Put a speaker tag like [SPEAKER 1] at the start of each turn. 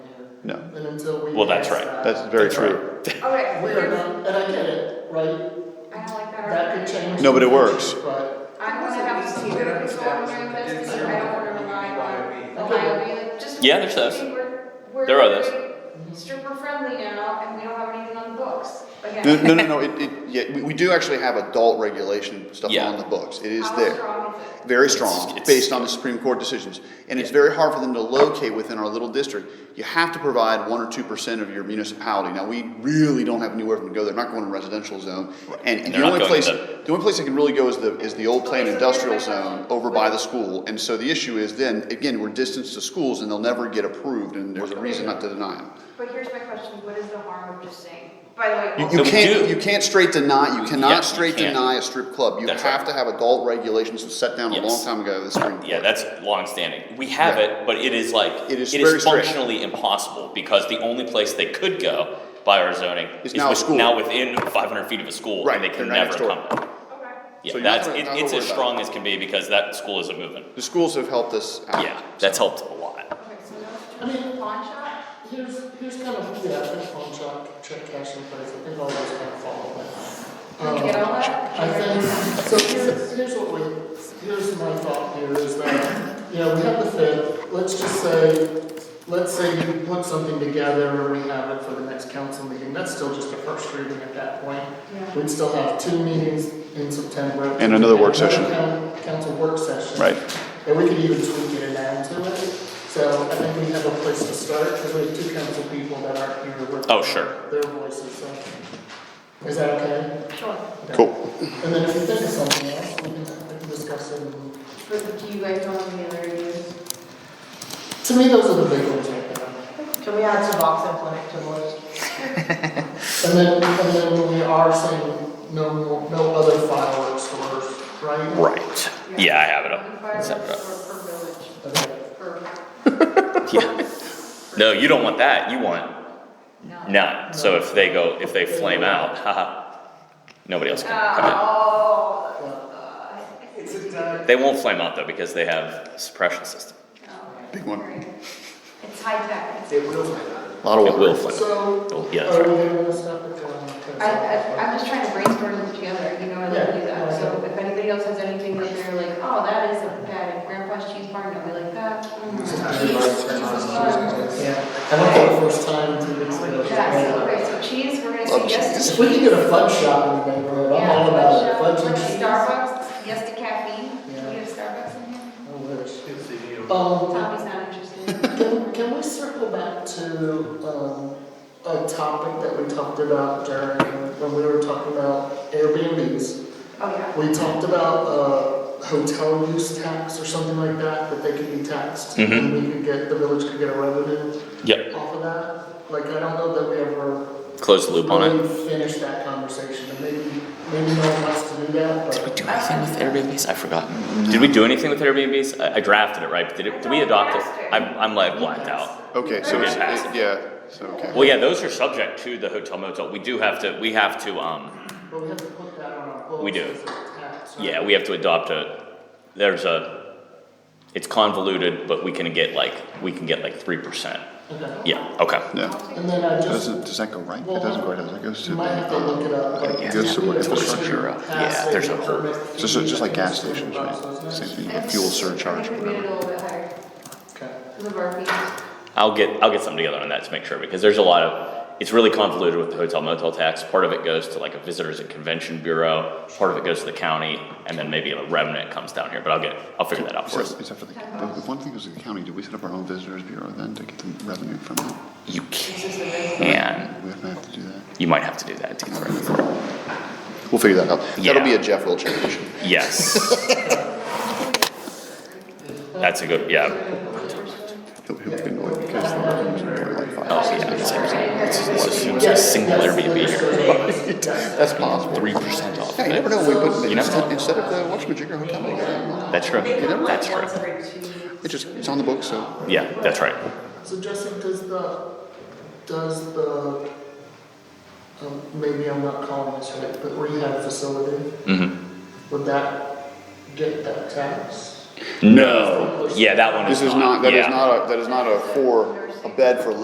[SPEAKER 1] No,
[SPEAKER 2] And until we.
[SPEAKER 3] Well, that's
[SPEAKER 2] pass
[SPEAKER 3] right.
[SPEAKER 2] that,
[SPEAKER 1] that's very
[SPEAKER 3] That's
[SPEAKER 1] true.
[SPEAKER 4] All right,
[SPEAKER 2] We are
[SPEAKER 4] here's-
[SPEAKER 2] not, and I get it, right?
[SPEAKER 4] I don't like that.
[SPEAKER 2] That could
[SPEAKER 4] argument.
[SPEAKER 2] change.
[SPEAKER 1] No, but it
[SPEAKER 2] in the
[SPEAKER 1] works.
[SPEAKER 2] future, But
[SPEAKER 4] I'm gonna have some critical control during this, because I don't wanna rely on, rely on you. Just
[SPEAKER 3] Yeah, there's those.
[SPEAKER 4] we're- we're
[SPEAKER 3] There are those.
[SPEAKER 4] very Stripper friendly now, and we don't have anything on the books,
[SPEAKER 1] No,
[SPEAKER 4] again.
[SPEAKER 1] no, no, no, it, it, yeah, we, we do actually have adult regulation stuff
[SPEAKER 3] Yeah.
[SPEAKER 1] on the books, it is
[SPEAKER 4] How
[SPEAKER 1] there.
[SPEAKER 4] strong is it?
[SPEAKER 1] Very
[SPEAKER 3] It's-
[SPEAKER 1] strong,
[SPEAKER 3] it's-
[SPEAKER 1] based on the Supreme Court decisions. And it's very hard for them to locate within our little district. You have to provide one or two percent of your municipality. Now, we really don't have anywhere for them to go, they're not going to residential zone. And, and
[SPEAKER 3] They're
[SPEAKER 1] the
[SPEAKER 3] not
[SPEAKER 1] only
[SPEAKER 3] going
[SPEAKER 1] place,
[SPEAKER 3] to
[SPEAKER 1] the only place they can really go is the, is the old planned
[SPEAKER 4] Okay, so here's my
[SPEAKER 1] industrial zone
[SPEAKER 4] question.
[SPEAKER 1] over by the school. And so the issue is then, again, we're distanced to schools and they'll never get approved and there's a reason not to deny them.
[SPEAKER 4] But here's my question, what is the harm of just saying, by the way.
[SPEAKER 1] You,
[SPEAKER 3] So
[SPEAKER 1] you
[SPEAKER 3] we
[SPEAKER 1] can't,
[SPEAKER 3] do-
[SPEAKER 1] you can't straight deny, you
[SPEAKER 3] Yeah, you
[SPEAKER 1] cannot straight
[SPEAKER 3] can't.
[SPEAKER 1] deny a strip club. You
[SPEAKER 3] That's
[SPEAKER 1] have
[SPEAKER 3] right.
[SPEAKER 1] to have adult regulations set down a long
[SPEAKER 3] Yes.
[SPEAKER 1] time ago, the Supreme Court.
[SPEAKER 3] Yeah, that's longstanding. We have
[SPEAKER 1] Yeah.
[SPEAKER 3] it, but it is like
[SPEAKER 1] It is very strict.
[SPEAKER 3] functionally impossible because the only place they could go by our zoning
[SPEAKER 1] Is now a
[SPEAKER 3] with-
[SPEAKER 1] school.
[SPEAKER 3] now within 500 feet of a school,
[SPEAKER 1] Right,
[SPEAKER 3] and they
[SPEAKER 1] they're
[SPEAKER 3] can
[SPEAKER 1] not
[SPEAKER 3] never
[SPEAKER 1] next door.
[SPEAKER 3] come. back.
[SPEAKER 4] Okay.
[SPEAKER 3] Yeah,
[SPEAKER 1] So you're not
[SPEAKER 3] that's
[SPEAKER 1] gonna-
[SPEAKER 3] it,
[SPEAKER 1] not gonna
[SPEAKER 3] it's as
[SPEAKER 1] worry about
[SPEAKER 3] strong as can be because that school isn't moving.
[SPEAKER 1] The schools have helped us out.
[SPEAKER 3] Yeah, that's helped a lot.
[SPEAKER 4] Okay, so
[SPEAKER 2] I
[SPEAKER 4] no,
[SPEAKER 2] mean-
[SPEAKER 4] pawn shop?
[SPEAKER 2] here's, here's kind of, yeah, I think pawn shop, check cash in place, I think all those kind of follow that. Um,
[SPEAKER 4] Can you get all that?
[SPEAKER 2] I think, so here's, here's what we, here's my thought here is that, you know, we have the fifth, let's just say, let's say you put something together and we have it for the next council meeting, that's still just a first reading at that point.
[SPEAKER 4] Yeah.
[SPEAKER 2] We'd still have two meetings in September.
[SPEAKER 1] And another work session.
[SPEAKER 2] coun- Council work session.
[SPEAKER 1] Right.
[SPEAKER 2] And we could even tweak it and add to it, so I think we have a place to start, because we have two council people that aren't here, we're.
[SPEAKER 3] Oh, sure.
[SPEAKER 2] Their voices, so, is that okay?
[SPEAKER 4] Sure.
[SPEAKER 2] Okay.
[SPEAKER 1] Cool.
[SPEAKER 2] And then if you think of something else, we can, we can discuss it. and-
[SPEAKER 4] But do you guys want any other ideas?
[SPEAKER 2] To me, those are the big ones right there.
[SPEAKER 5] Can we add Suboxone Clinic to the list?
[SPEAKER 2] And then, and then we are saying no, more- no other fireworks stores, right?
[SPEAKER 3] Right. Yeah, I have it
[SPEAKER 4] One
[SPEAKER 3] up.
[SPEAKER 4] fireworks
[SPEAKER 3] It's up, up.
[SPEAKER 4] or per village,
[SPEAKER 2] Okay.
[SPEAKER 4] per,
[SPEAKER 3] Yeah. No, you don't want that. You want
[SPEAKER 4] no.
[SPEAKER 3] none. So if they go, if they flame out, haha, nobody else can come in.
[SPEAKER 4] Oh.
[SPEAKER 2] It's a done.
[SPEAKER 3] They won't flame out though because they have suppression system.
[SPEAKER 1] Big one.
[SPEAKER 4] It's high tech.
[SPEAKER 2] It will.
[SPEAKER 1] A lot of
[SPEAKER 3] It
[SPEAKER 1] water.
[SPEAKER 3] will flame out.
[SPEAKER 2] So,
[SPEAKER 3] Oh,
[SPEAKER 2] are we
[SPEAKER 3] yeah, that's right.
[SPEAKER 2] gonna stop it
[SPEAKER 4] I, I, I'm just trying to brainstorm this together, you know, I love to do that, so if anybody else has anything that they're like, oh, that is a bad, grandpa's cheese bar, and I'll be like, that. mm, cheese.
[SPEAKER 2] Yeah, I don't think the first time two weeks ago.
[SPEAKER 4] Yes, okay, so cheese, we're gonna say
[SPEAKER 1] Love
[SPEAKER 4] yes to
[SPEAKER 2] If
[SPEAKER 4] cheese.
[SPEAKER 2] we can get a fudge shop in the neighborhood, I'm
[SPEAKER 4] Yeah,
[SPEAKER 2] all about it,
[SPEAKER 4] let's,
[SPEAKER 2] fudge
[SPEAKER 4] uh,
[SPEAKER 2] and
[SPEAKER 4] let's
[SPEAKER 2] cheese.
[SPEAKER 4] Starbucks, yes to caffeine,
[SPEAKER 2] Yeah.
[SPEAKER 4] can we get a Starbucks in
[SPEAKER 2] I
[SPEAKER 4] here?
[SPEAKER 2] wish. Um,
[SPEAKER 4] Tommy's not interested.
[SPEAKER 2] Can, can we circle back to, um, a topic that we talked about during, when we were talking about Airbnbs?
[SPEAKER 4] Oh, yeah.
[SPEAKER 2] We talked about, uh, hotel use tax or something like that, that they could be taxed.
[SPEAKER 3] Mhm.
[SPEAKER 2] And we could get, the village could get a revenue
[SPEAKER 3] Yep.
[SPEAKER 2] off of that. Like, I don't know that we ever
[SPEAKER 3] Close the loop on it.
[SPEAKER 2] really finished that conversation, and maybe, maybe no one wants to do that, but.
[SPEAKER 3] do anything with Airbnbs? I've forgotten. Did we do anything with Airbnbs? I, I drafted it, right? But did it, did we adopt it? I'm, I'm like blacked out.
[SPEAKER 1] Okay, so
[SPEAKER 3] Okay.
[SPEAKER 1] it's, it- yeah, so, okay.
[SPEAKER 3] Well, yeah, those are subject to the hotel motel. We do have to, we have to, um,
[SPEAKER 2] But we have to put that on our books.
[SPEAKER 3] We do.
[SPEAKER 2] as a tax, right?
[SPEAKER 3] yeah, we have to adopt a, there's a, it's convoluted, but we can get like, we can get like three percent.
[SPEAKER 2] Okay.
[SPEAKER 3] Yeah, okay.
[SPEAKER 1] Yeah.
[SPEAKER 2] And then I just.
[SPEAKER 1] Does it, does that go right? It doesn't go right, does it goes to
[SPEAKER 2] You
[SPEAKER 1] the,
[SPEAKER 2] might have to look it up,
[SPEAKER 1] uh,
[SPEAKER 2] but.
[SPEAKER 1] it goes to what infrastructure, uh,
[SPEAKER 3] yeah, there's a whole-
[SPEAKER 1] just, just like gas stations, right? Same thing, a fuel surcharge or
[SPEAKER 4] I think we
[SPEAKER 1] whatever.
[SPEAKER 4] made it a little bit higher,
[SPEAKER 2] Okay.
[SPEAKER 4] because of our fees.
[SPEAKER 3] I'll get, I'll get something together on that to make sure, because there's a lot of, it's really convoluted with the hotel motel tax. Part of it goes to like a visitors and convention bureau, part of it goes to the county, and then maybe a remnant comes down here, but I'll get, I'll figure that out
[SPEAKER 1] Is
[SPEAKER 3] for us.
[SPEAKER 1] that, is that for the, the the one thing is the county, do we set up our own visitors bureau then to get the revenue from it?
[SPEAKER 3] You can,
[SPEAKER 1] We have to have to do that.
[SPEAKER 3] you might have to do that to get the revenue.
[SPEAKER 1] We'll figure that out. That'll
[SPEAKER 3] Yeah.
[SPEAKER 1] be a Jeff Wilcher issue.
[SPEAKER 3] Yes. That's a good, yeah.
[SPEAKER 1] He'll, he'll get annoyed because the revenue's only like five.
[SPEAKER 3] Oh, yeah. It's like, it's, it's assumes a single Airbnb here,
[SPEAKER 1] That's possible.
[SPEAKER 3] three percent off.
[SPEAKER 1] Yeah, you never know, we, but
[SPEAKER 3] You never know.
[SPEAKER 1] instead, instead of the Watchmaker Hotel, we got
[SPEAKER 3] That's true.
[SPEAKER 5] They come
[SPEAKER 3] That's
[SPEAKER 5] like
[SPEAKER 3] true.
[SPEAKER 5] once every two years.
[SPEAKER 1] it. it just, it's on the book, so.
[SPEAKER 3] Yeah, that's right.
[SPEAKER 2] So Justin, does the, does the, um, maybe I'm not calling this right, but rehab facility,
[SPEAKER 3] Mm-hmm.
[SPEAKER 2] would that get that tax?
[SPEAKER 3] No. Yeah, that one is
[SPEAKER 1] This is not, that is
[SPEAKER 3] yeah.
[SPEAKER 1] not a, that is not a for, a bed for